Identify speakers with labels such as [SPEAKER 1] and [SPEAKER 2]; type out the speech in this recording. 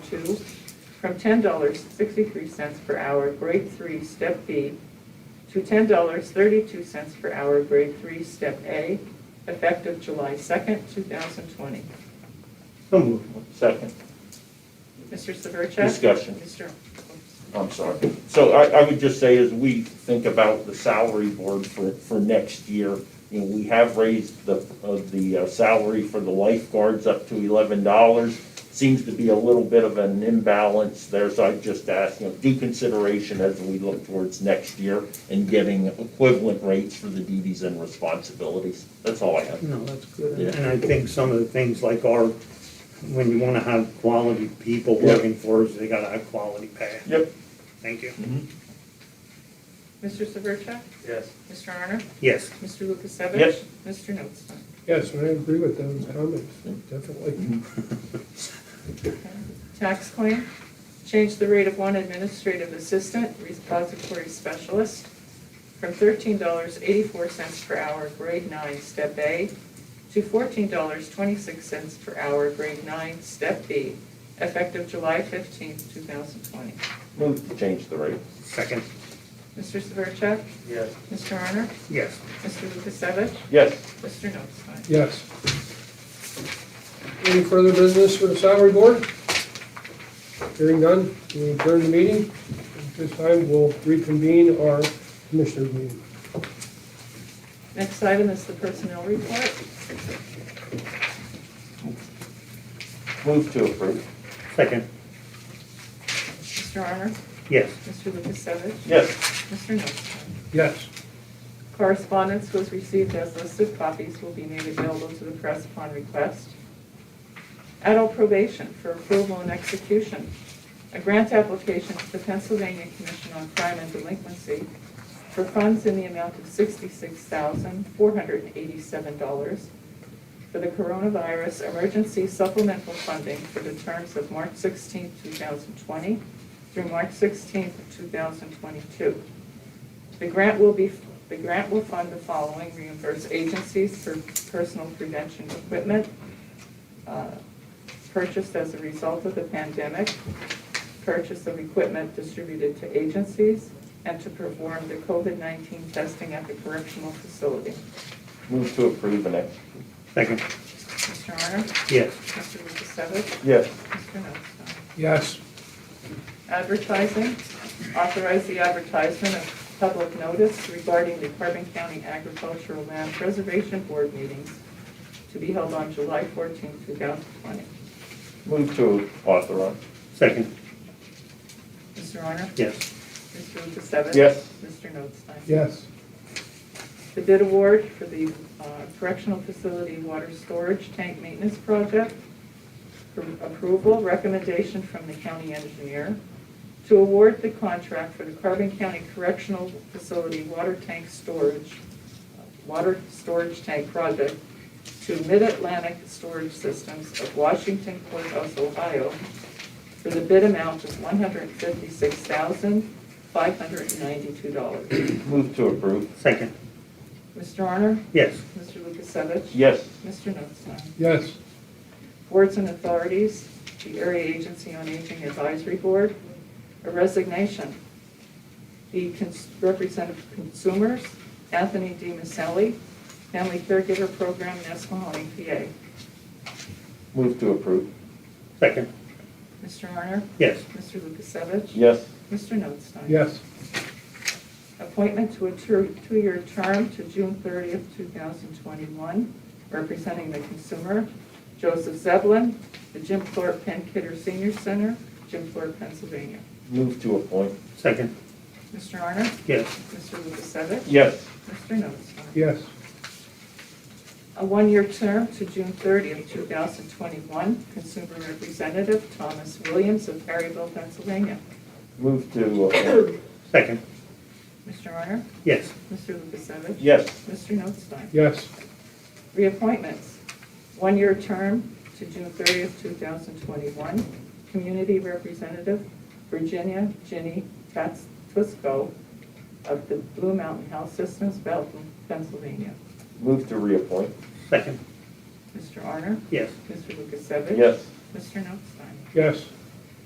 [SPEAKER 1] two from ten dollars sixty-three cents per hour, grade three, step B, to ten dollars thirty-two cents per hour, grade three, step A, effective July second, two thousand twenty.
[SPEAKER 2] So moved.
[SPEAKER 3] Second.
[SPEAKER 1] Mr. Severcek?
[SPEAKER 3] Discussion.
[SPEAKER 1] Mr.
[SPEAKER 3] I'm sorry. So I, I would just say, as we think about the salary board for, for next year, you know, we have raised the, of the uh, salary for the lifeguards up to eleven dollars. Seems to be a little bit of an imbalance there, so I just ask, you know, due consideration as we look towards next year and getting equivalent rates for the duties and responsibilities. That's all I have.
[SPEAKER 2] No, that's good.
[SPEAKER 3] Yeah.
[SPEAKER 2] And I think some of the things like our, when you want to have quality people
[SPEAKER 3] Yeah.
[SPEAKER 2] working for us, they got to have quality pay.
[SPEAKER 3] Yep.
[SPEAKER 2] Thank you.
[SPEAKER 1] Mr. Severcek?
[SPEAKER 2] Yes.
[SPEAKER 1] Mr. Honor?
[SPEAKER 2] Yes.
[SPEAKER 1] Mr. Lukasevich?
[SPEAKER 3] Yes.
[SPEAKER 1] Mr. Notstein?
[SPEAKER 4] Yes, I agree with those comments, definitely.
[SPEAKER 1] Tax claim, change the rate of one administrative assistant, repository specialist, from thirteen dollars eighty-four cents per hour, grade nine, step A, to fourteen dollars twenty-six cents per hour, grade nine, step B, effective July fifteenth, two thousand twenty.
[SPEAKER 3] Move to change the rate.
[SPEAKER 2] Second.
[SPEAKER 1] Mr. Severcek?
[SPEAKER 2] Yes.
[SPEAKER 1] Mr. Honor?
[SPEAKER 2] Yes.
[SPEAKER 1] Mr. Lukasevich?
[SPEAKER 3] Yes.
[SPEAKER 1] Mr. Notstein?
[SPEAKER 4] Yes. Any further business for the salary board? Hearing none, we adjourn the meeting. At this time, we'll reconvene our commissioner meeting.
[SPEAKER 1] Next item is the personnel report.
[SPEAKER 3] Move to approve.
[SPEAKER 2] Second.
[SPEAKER 1] Mr. Honor?
[SPEAKER 2] Yes.
[SPEAKER 1] Mr. Lukasevich?
[SPEAKER 3] Yes.
[SPEAKER 1] Mr. Notstein?
[SPEAKER 4] Yes.
[SPEAKER 1] Correspondence was received as listed. Copies will be made available to the press upon request. Adult probation for approval and execution. A grant application to the Pennsylvania Commission on Crime and Delinquency for funds in the amount of $66,487 for the coronavirus emergency supplemental funding for the terms of March 16, 2020 through March 16, 2022. The grant will be, the grant will fund the following, reimburse agencies for personal prevention equipment uh, purchased as a result of the pandemic, purchase of equipment distributed to agencies, and to perform the COVID-19 testing at the correctional facility.
[SPEAKER 3] Move to approve and execute.
[SPEAKER 2] Second.
[SPEAKER 1] Mr. Honor?
[SPEAKER 2] Yes.
[SPEAKER 1] Mr. Lukasevich?
[SPEAKER 3] Yes.
[SPEAKER 1] Mr. Nostine?
[SPEAKER 4] Yes.
[SPEAKER 1] Advertising, authorize the advertisement of public notice regarding the Carbon County Agricultural Land Preservation Board meetings to be held on July 14, 2020.
[SPEAKER 3] Move to authorize.
[SPEAKER 2] Second.
[SPEAKER 1] Mr. Honor?
[SPEAKER 2] Yes.
[SPEAKER 1] Mr. Lukasevich?
[SPEAKER 3] Yes.
[SPEAKER 1] Mr. Notstein?
[SPEAKER 4] Yes.
[SPEAKER 1] The bid award for the uh, correctional facility water storage tank maintenance project for approval, recommendation from the county engineer to award the contract for the Carbon County Correctional Facility water tank storage, water storage tank project to Mid-Atlantic Storage Systems of Washington Courthouse, Ohio, for the bid amount of $156,592.
[SPEAKER 3] Move to approve.
[SPEAKER 2] Second.
[SPEAKER 1] Mr. Honor?
[SPEAKER 2] Yes.
[SPEAKER 1] Mr. Lukasevich?
[SPEAKER 3] Yes.
[SPEAKER 1] Mr. Notstein?
[SPEAKER 4] Yes.
[SPEAKER 1] Boards and authorities, the Area Agency on Aging Advisory Board, a resignation. The cons- Representative of Consumers, Anthony D. Maselli, Family Caregiver Program, Nescahoning, PA.
[SPEAKER 3] Move to approve.
[SPEAKER 2] Second.
[SPEAKER 1] Mr. Honor?
[SPEAKER 2] Yes.
[SPEAKER 1] Mr. Lukasevich?
[SPEAKER 3] Yes.
[SPEAKER 1] Mr. Notstein?
[SPEAKER 4] Yes.
[SPEAKER 1] Appointment to a two- two-year term to June 30th, 2021, representing the consumer, Joseph Zeblin, the Jim Thorpe Penn Kidder Senior Center, Jim Thorpe, Pennsylvania.
[SPEAKER 3] Move to appoint.
[SPEAKER 2] Second.
[SPEAKER 1] Mr. Honor?
[SPEAKER 2] Yes.
[SPEAKER 1] Mr. Lukasevich?
[SPEAKER 3] Yes.
[SPEAKER 1] Mr. Notstein?
[SPEAKER 4] Yes.
[SPEAKER 1] A one-year term to June 30th, 2021, consumer representative, Thomas Williams of Perryville, Pennsylvania.
[SPEAKER 3] Move to appoint.
[SPEAKER 2] Second.
[SPEAKER 1] Mr. Honor?
[SPEAKER 2] Yes.
[SPEAKER 1] Mr. Lukasevich?
[SPEAKER 3] Yes.
[SPEAKER 1] Mr. Notstein?
[SPEAKER 4] Yes.
[SPEAKER 1] Reappointments, one-year term to June 30th, 2021. Community Representative, Virginia Ginny Katz Fusco of the Blue Mountain Health Systems, Belton, Pennsylvania.
[SPEAKER 3] Move to reappoint.
[SPEAKER 2] Second.
[SPEAKER 1] Mr. Arner,
[SPEAKER 2] Yes.
[SPEAKER 1] Mr. Lukasevich?
[SPEAKER 3] Yes.
[SPEAKER 1] Mr. Notstein?
[SPEAKER 4] Yes.